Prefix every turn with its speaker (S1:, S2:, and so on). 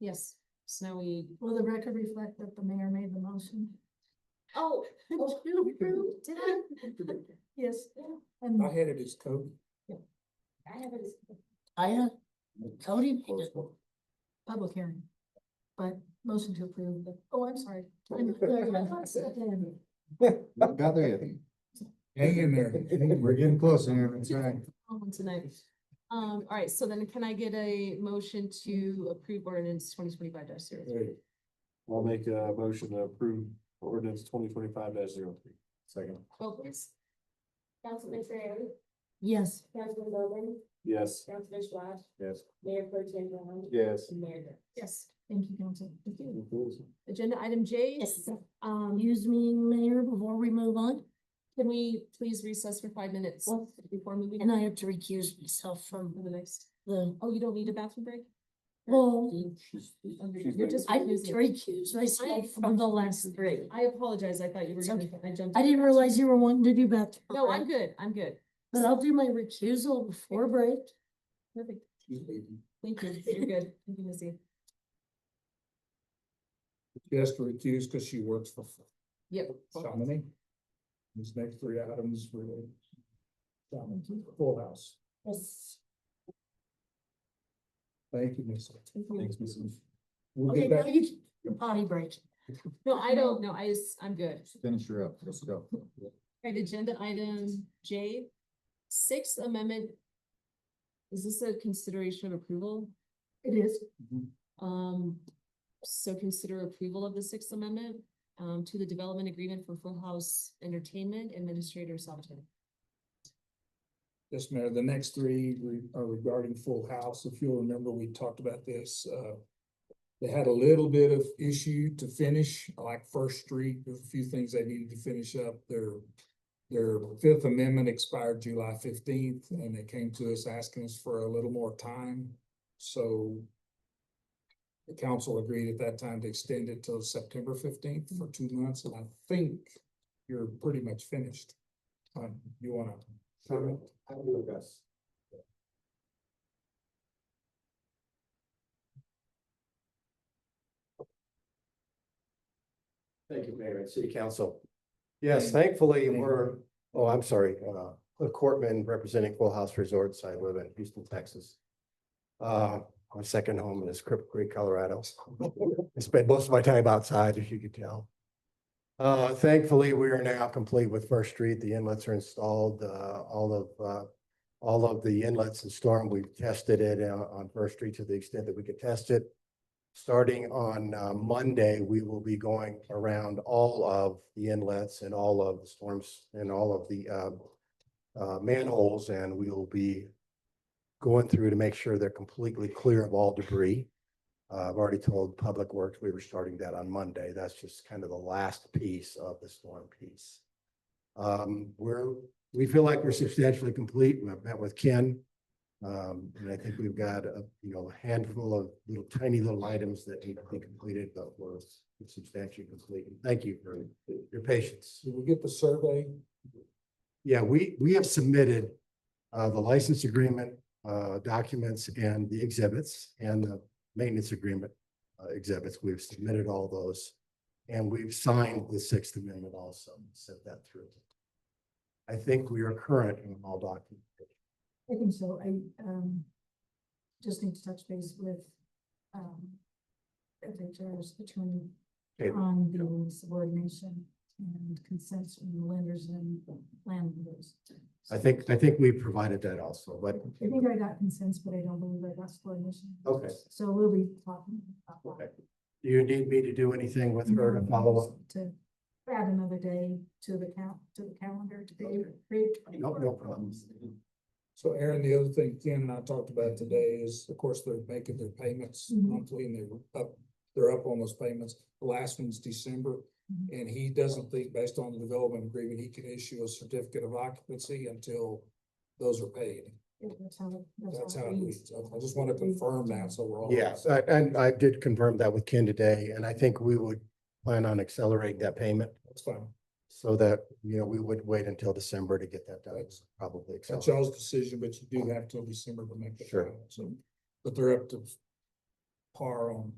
S1: Yes, snowy,
S2: Will the record reflect that the mayor made the motion?
S3: Oh, Oh.
S2: To approve?
S3: did I?
S2: Yes,
S3: Yeah.
S2: and
S4: I had it as Cody.
S3: I have it as.
S5: I have, Cody, made it.
S2: public hearing. But motion to approve, the- oh, I'm sorry.
S6: Got there yet.
S4: Hang in there.
S6: We're getting close, Aaron, that's right.
S1: um, tonight. Um, all right, so then can I get a motion to approve ordinance twenty twenty-five dash zero three?
S6: I'll make a motion to approve ordinance twenty twenty-five 3 Second.
S1: Twelve, please.
S3: Councilman Fairley,
S2: Yes.
S3: Councilman Bowman,
S6: Yes.
S3: Councilman Schwa,
S6: Yes.
S3: Mayor Pro Tem Brown.
S6: Yes.
S3: and Mayor. Gurke.
S1: Yes.
S2: Thank you, council. Thank you.
S1: Agenda item J.
S5: Yes.
S1: Um,
S5: Excuse me, Mayor, before we move on,
S1: can we please recess for five minutes before moving
S5: and
S1: on
S5: I have to recuse myself
S1: to
S5: from
S1: the next?
S5: the,
S1: Oh, you don't need a bathroom break?
S5: well,
S1: You're just
S5: Oh. I need to
S1: recusing.
S5: recuse myself from the last three.
S1: I apologize, I thought you were
S5: It's
S1: gonna, I jumped.
S5: I didn't realize you were wanting to do that.
S1: No, I'm good, I'm good.
S5: But I'll do my recusal before break.
S1: Perfect. Thank you, you're good. Thank you, Missy.
S4: Just recused because she works for
S1: Yep.
S4: Chamonix. These next three items were Chamonix, full house.
S5: Yes.
S4: Thank you, Missy. Thanks, Missy. We'll
S5: Okay,
S4: get
S5: now
S4: back.
S5: you, can potty break.
S1: No, I don't, no, I just, I'm good.
S6: Finish her up, let's go.
S1: Right, agenda item J, Sixth Amendment. Is this a consideration of approval?
S2: It is.
S4: Mm-hmm.
S1: Um, so consider approval of the Sixth Amendment um to the development agreement for Full House Entertainment Administrator Salvatore.
S4: Yes, Mayor, the next three re- are regarding Full House. If you'll remember, we talked about this, uh. They had a little bit of issue to finish, like First Street, there's a few things they needed to finish up. Their, their Fifth Amendment expired July fifteenth, and they came to us asking us for a little more time, so. The council agreed at that time to extend it till September fifteenth for two months, and I think you're pretty much finished. Uh, you wanna comment?
S7: Thank you, Mayor and City Council. Yes, thankfully,
S4: Thank you.
S7: we're, oh, I'm sorry, uh, Cliff Courtman representing Full House Resorts. I live in Houston, Texas. Uh, my second home is Cripple Creek, Colorado. I spend most of my time outside, as you could tell. Uh, thankfully, we are now complete with First Street. The inlets are installed, uh, all of, uh, all of the inlets and storm, we've tested it uh, on First Street to the extent that we could test it. Starting on uh, Monday, we will be going around all of the inlets and all of the storms and all of the um, uh, manholes, and we will be going through to make sure they're completely clear of all debris. Uh, I've already told Public Works, we were starting that on Monday. That's just kind of the last piece of the storm piece. Um, We're, we feel like we're substantially complete. I've met with Ken. Um, and I think we've got a, you know, a handful of little tiny little items that need to be completed, but we're substantially complete. Thank you for your patience.
S4: So we get the survey,
S7: Yeah, we, we have submitted uh, the license agreement, uh, documents and the exhibits and the maintenance agreement uh, exhibits. We've submitted all those. And we've signed the Sixth Amendment also, sent that through. I think we are current in all documents.
S2: I think so. I, um, just need to touch base with, um, FHR's attorney
S7: Okay.
S2: on the subordination and consents from the lenders and landlords.
S7: I think, I think we provided that also, but
S2: I think I got consents, but I don't believe I got subordination.
S7: Okay.
S2: So we'll be talking about that.
S7: Okay. do you need me to do anything with her to follow up?
S2: To add another day to the count, to the calendar, to the
S7: Okay.
S2: create
S7: No, no problems.
S4: so Aaron, the other thing Ken and I talked about today is, of course, they're making their payments
S2: Mhm.
S4: monthly and they're up. They're up on those payments, the last one's December,
S2: Mhm.
S4: and he doesn't think, based on the development agreement, he can issue a certificate of occupancy until. Those are paid,
S2: That's how it-
S4: that's how
S2: it
S4: it
S2: reads.
S4: reads, I I just wanna confirm that, so we're all.
S7: Yes, I- and I did confirm that with Ken today, and I think we would plan on accelerating that payment
S4: That's fine,
S7: so that, you know, we would wait until December to get that done, probably.
S4: that's
S7: accelerate.
S4: y'all's decision, but you do have till December to make the
S7: Sure.
S4: final, so, but they're up to. Par on